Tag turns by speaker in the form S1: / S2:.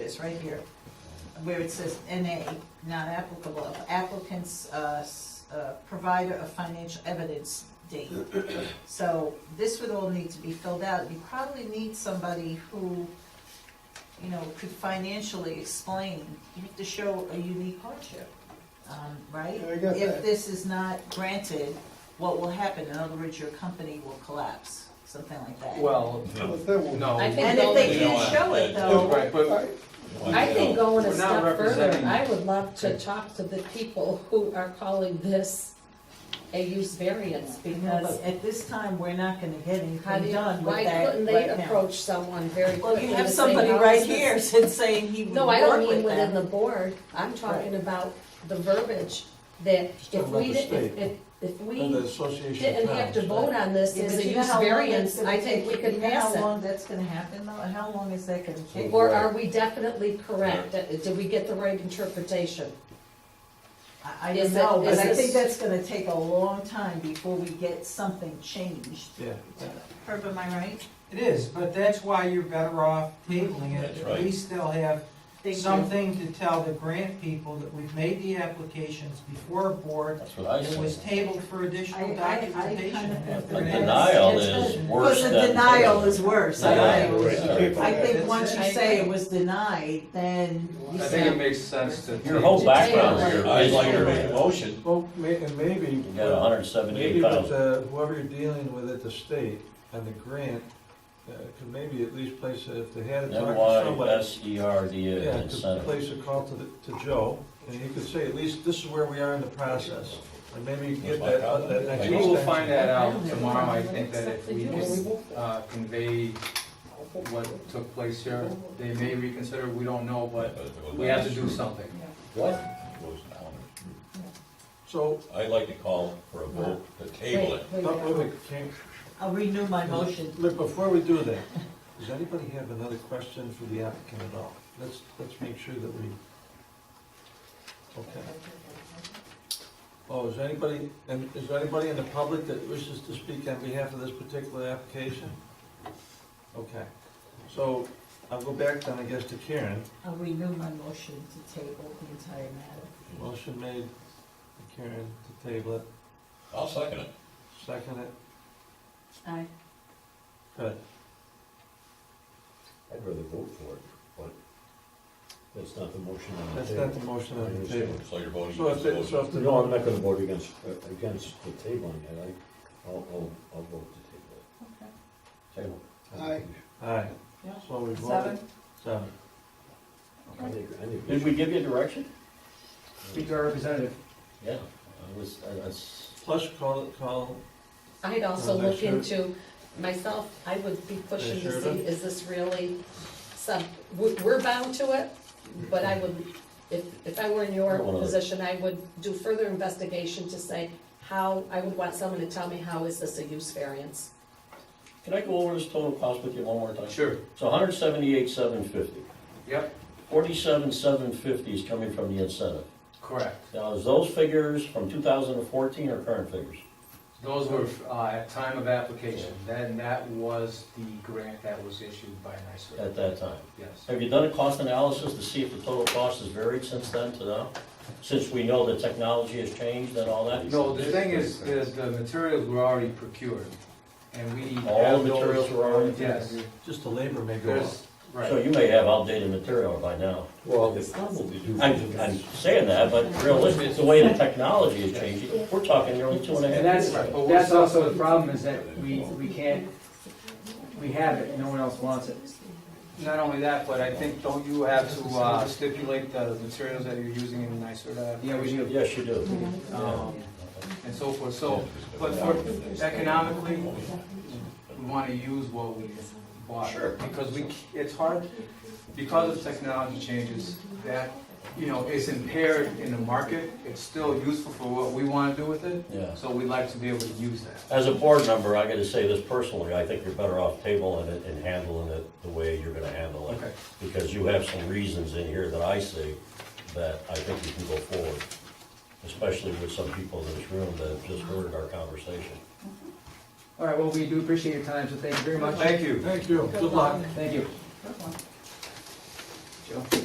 S1: is, right here, where it says NA, not applicable, of applicant's, uh, s- uh, provider of financial evidence date. So this would all need to be filled out. You probably need somebody who, you know, could financially explain. You have to show a unique hardship, um, right?
S2: I got
S1: If
S2: that.
S1: this is not granted, what will happen? In other words, your company will collapse, something like that.
S3: Well,
S2: Well, that will-
S3: no.
S4: I think
S1: And if they
S4: You
S1: can't
S5: know,
S1: show it
S5: uh,
S1: though,
S3: Right, but,
S4: I think going a
S3: We're not
S4: step further,
S3: representing-
S4: I would love to talk to the people who are calling this a use variance, because
S1: because at this time, we're not gonna get
S4: how do
S1: anything
S4: you,
S1: done
S4: why
S1: with that
S4: couldn't they
S1: right now.
S4: approach someone very quickly?
S1: Well, you have
S4: to say,
S1: somebody
S4: "How
S1: right
S4: is "Oh, this-"
S1: here since saying he would
S4: No, I don't
S1: work with
S4: mean within the
S1: them.
S4: board, I'm talking about the verbiage, that if
S6: talking
S4: we,
S6: about the
S4: didn't- if,
S6: state.
S4: if, if
S6: And the
S4: we
S6: Association of
S4: didn't have to
S6: Towns,
S4: vote on this
S1: Yeah,
S4: as
S1: but
S4: a
S1: you know
S4: use
S1: how long
S4: variance,
S1: that's gonna
S4: I think we
S1: take?
S4: could
S1: You know
S4: pass
S1: How
S4: it.
S1: long that's gonna happen though? How long is that gonna take?
S4: Or are we definitely correct, did we get the right interpretation?
S1: I, I don't
S4: Is it-
S1: know, but
S4: is
S1: I
S4: this-
S1: think that's gonna take a long time before we get something changed.
S3: yeah.
S1: Herb, am I right?
S7: It is, but that's why you're better off tabling
S5: That's
S7: it. At
S5: right.
S7: least they'll have
S1: Thank you.
S7: something to tell the grant people that we've made the applications before a board.
S5: That's what I
S7: It was
S5: said.
S7: tabled for additional
S1: I- I- I kind of
S7: documentation.
S1: think
S7: If
S5: The
S7: they're gonna-
S5: denial
S1: It's
S5: is
S1: good.
S5: worse than.
S1: Because the denial is worse, I
S5: Yeah,
S1: think.
S5: right.
S1: I think
S7: Yeah.
S1: once you
S4: I
S1: say it
S4: agree.
S1: was denied, then
S3: I
S1: you
S3: think it
S1: say,
S3: makes sense to.
S5: Your whole
S3: take-
S5: background here
S6: I'd
S5: is
S6: like to make
S5: like,
S6: a
S5: motion,
S6: Well, may, and maybe.
S5: you got hundred and seventy-eight
S6: Maybe with
S5: thousand.
S6: the, whoever you're dealing with at the state and the grant, uh, could maybe at least place, a- if they had it
S5: M
S6: talked to
S5: Y
S6: somebody.
S5: S E R D
S6: Yeah,
S5: A
S6: could
S5: incentive.
S6: place a call to, the- to Joe, and he could say, at least this is where we are in the process, and maybe you can get that, uh, that next.
S3: We will
S6: extension.
S3: find that out tomorrow, I think that if we can, uh, convey what took place here, they may reconsider, we don't know, but we have to do something.
S8: What?
S6: So,
S8: I'd like to call for a vote to table it.
S4: Wait, wait,
S6: not
S4: wait.
S6: really, can't,
S1: I'll renew my motion.
S6: Look, before we do that, does anybody have another question for the applicant at all? Let's, let's make sure that we, okay. Oh, is anybody, and is there anybody in the public that wishes to speak on behalf of this particular application? Okay, so I'll go back then, I guess, to Karen.
S1: I'll renew Uh, my motion to table the entire matter.
S6: Motion made, by Karen, to table it,
S8: I'll second it.
S6: second it,
S4: Aye.
S6: good.
S8: I'd rather vote for it, but that's not the motion on
S6: That's not the motion on the table.
S8: So you're voting
S6: So if,
S8: against the
S6: it- so
S8: motion.
S6: if the.
S9: No, I'm not gonna vote against, uh, against the tabling it, I, I'll, I'll, I'll vote to table it. Table.
S2: Aye.
S6: All right,
S1: Yeah.
S6: so we voted.
S1: Seven?
S6: Seven.
S9: I think, I think.
S5: Did we give you direction?
S9: Speak
S3: to our representative.
S5: Yeah, I was, I was.
S6: Plus, call, call,
S4: I'd also
S6: Well,
S4: look
S6: they
S4: into, myself, I would be pushing
S6: They
S4: to
S6: should.
S4: see, is this really sub, we- we're bound to it, but I would, if, if I were in your
S5: Well, uh,
S4: position, I would do further investigation to say how, I would want someone to tell me how is this a use variance?
S5: Can I go over this total cost with you one more time?
S3: Sure,
S5: So hundred seventy-eight, seven fifty.
S3: yep,
S5: Forty-seven, seven fifty is coming from the incentive.
S3: correct.
S5: Now, is those figures from two thousand and fourteen or current figures?
S3: Those were, uh, at time of application, then that was the grant that was issued by NYSERDA,
S5: at that time.
S3: yes.
S5: Have you done a cost analysis to see if the total cost has varied since then to now? Since we know the technology has changed and all that?
S3: No, the thing is, is the materials were already procured, and we have
S5: All the
S3: those-
S5: materials were already-
S3: Yes,
S6: just the labor may go up.
S3: there's,
S5: So
S3: right,
S5: you may have outdated material by now.
S9: Well, they probably do.
S5: I'm, I'm saying that, but realistically, the way the technology is changing, we're talking nearly two and a half
S10: And that's,
S5: years.
S10: that's also the problem, is that we, we can't, we have it, and no one else wants it.
S3: not only that, but I think, don't you have to uh, stipulate the materials that you're using in NYSERDA?
S10: Yeah, we do.
S5: Yes, you do.
S3: Um, And so forth, so, but for economically, we want to use what we bought.
S5: Sure.
S3: Because we, c- it's hard, because of technology changes, that, you know, it's impaired in the market, it's still useful for what we want to do with it,
S5: Yeah.
S3: so we'd like to be able to use that.
S5: As a board member, I gotta say this personally, I think you're better off tabling it and handling it the way you're gonna handle it.
S3: Okay.
S5: Because you have some reasons in here that I see that I think you can go forward. Especially with some people in this room that have just heard our conversation.
S10: All right, well, we do appreciate your time, so thank you very much.
S3: Thank you.
S6: Thank you, good luck.
S10: Thank you. Joe?